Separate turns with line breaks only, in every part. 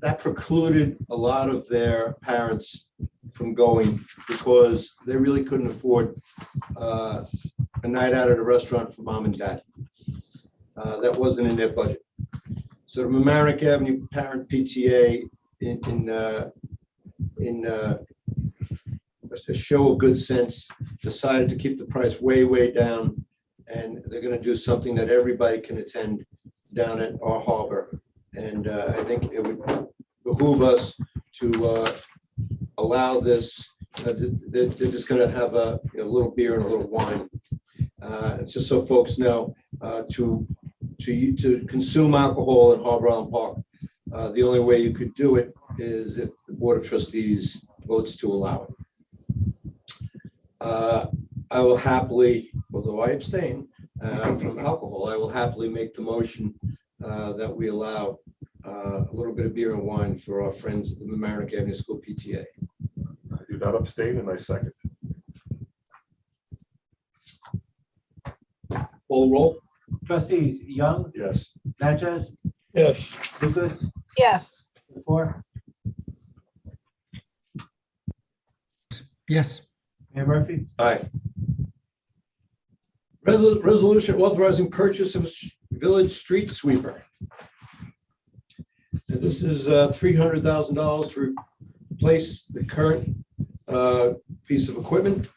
that precluded a lot of their parents from going because they really couldn't afford uh, a night out at a restaurant for mom and dad. Uh, That wasn't in their budget. So the Mamaronek Avenue Parent PTA in, in, uh, in uh, a show of good sense, decided to keep the price way, way down. And they're gonna do something that everybody can attend down at our harbor. And uh, I think it would behoove us to uh, allow this, uh, th- th- they're just gonna have a, you know, a little beer and a little wine. Uh, it's Just so folks know, uh, to, to, u- to consume alcohol in Harbor Island Park, uh, the only way you could do it is if the Board of Trustees votes to allow it. Uh, I will happily, although I abstain uh, from alcohol, I will happily make the motion uh, that we allow uh, a little bit of beer and wine for our friends at the Mamaronek Avenue School PTA.
I do not abstain and I second.
Full roll?
Trustees Young,
Yes,
Natchez,
yes,
Lucas,
yes,
the four,
yes,
Mayor Murphy,
Aye. Resol- Resolution authorizing purchase of s- village street sweeper. And This is uh, $300,000 to replace the current uh, piece of equipment.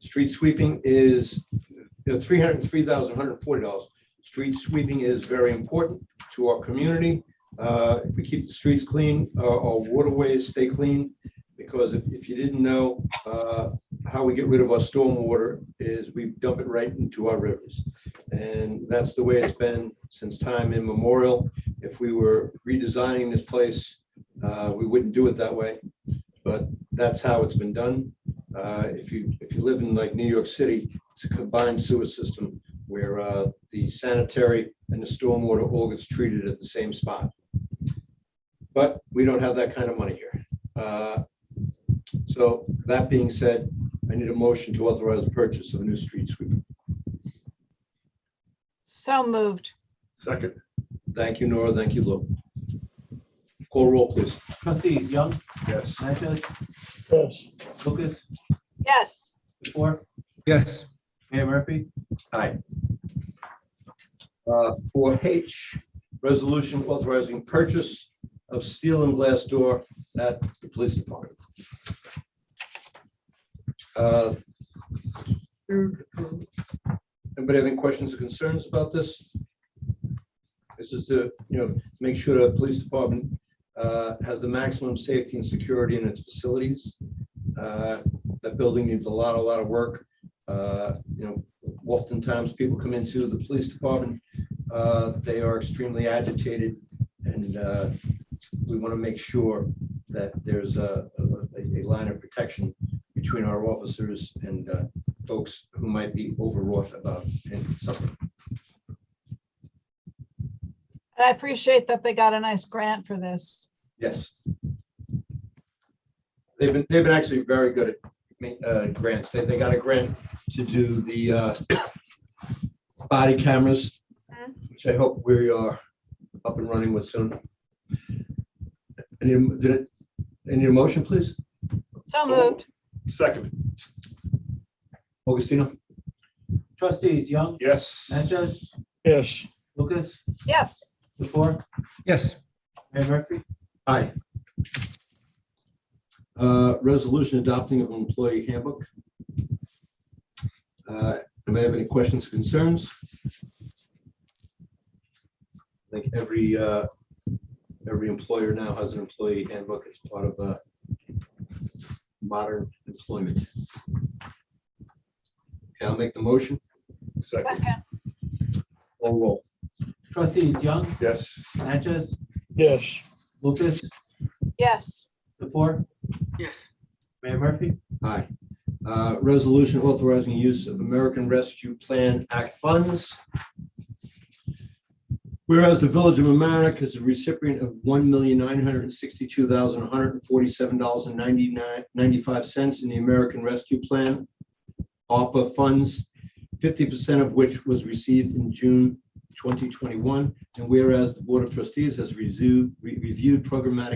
Street sweeping is, you know, $303,140. Street sweeping is very important to our community. Uh, If we keep the streets clean, uh, our waterways stay clean, because if if you didn't know, uh, how we get rid of our stormwater is we dump it right into our rivers. And that's the way it's been since time immemorial. If we were redesigning this place, uh, we wouldn't do it that way. But that's how it's been done. Uh, If you, if you live in like New York City, it's a combined sewer system where uh, the sanitary and the stormwater all gets treated at the same spot. But we don't have that kind of money here. Uh, So that being said, I need a motion to authorize the purchase of a new street sweeper.
so moved,
second,
Thank you, Nora. Thank you, Lou. Call roll, please.
trustees Young,
yes,
Natchez,
yes,
Lucas,
yes,
the four,
yes,
Mayor Murphy,
Aye. Four H, resolution authorizing purchase of steel and glass door at the police department. Uh, Anybody have any questions or concerns about this? This is to, you know, make sure the police department uh, has the maximum safety and security in its facilities. Uh, That building needs a lot, a lot of work. Uh, You know, oftentimes people come into the police department, uh, they are extremely agitated. And uh, we want to make sure that there's a, a- a line of protection between our officers and uh, folks who might be overwrought about something.
and I appreciate that they got a nice grant for this.
Yes. They've been, they've been actually very good at ma- uh, grants. They, they got a grant to do the uh, body cameras, which I hope we are up and running with soon. Any, did it, any motion, please?
So moved,
second,
Augustino?
trustees Young,
yes.
Natchez,
yes,
Lucas,
yes,
the four,
yes,
Mayor Murphy,
Aye. Uh, Resolution adopting of employee handbook. Uh, Anybody have any questions, concerns? I think every, uh, every employer now has an employee handbook as part of uh, modern employment. Okay, I'll make the motion.
Second,
second,
Roll roll.
trustees Young,
yes,
Natchez,
yes,
Lucas,
yes,
the four,
yes,
Mayor Murphy,
Aye. Uh, Resolution authorizing use of American Rescue Plan Act funds. Whereas the Village of Amerenik is a recipient of one million nine hundred and sixty-two thousand one hundred and forty-seven dollars and ninety-nine, ninety-five cents in the American Rescue Plan ARPA funds, fifty percent of which was received in June twenty twenty-one. And whereas the Board of Trustees has reviewed, reviewed programmatic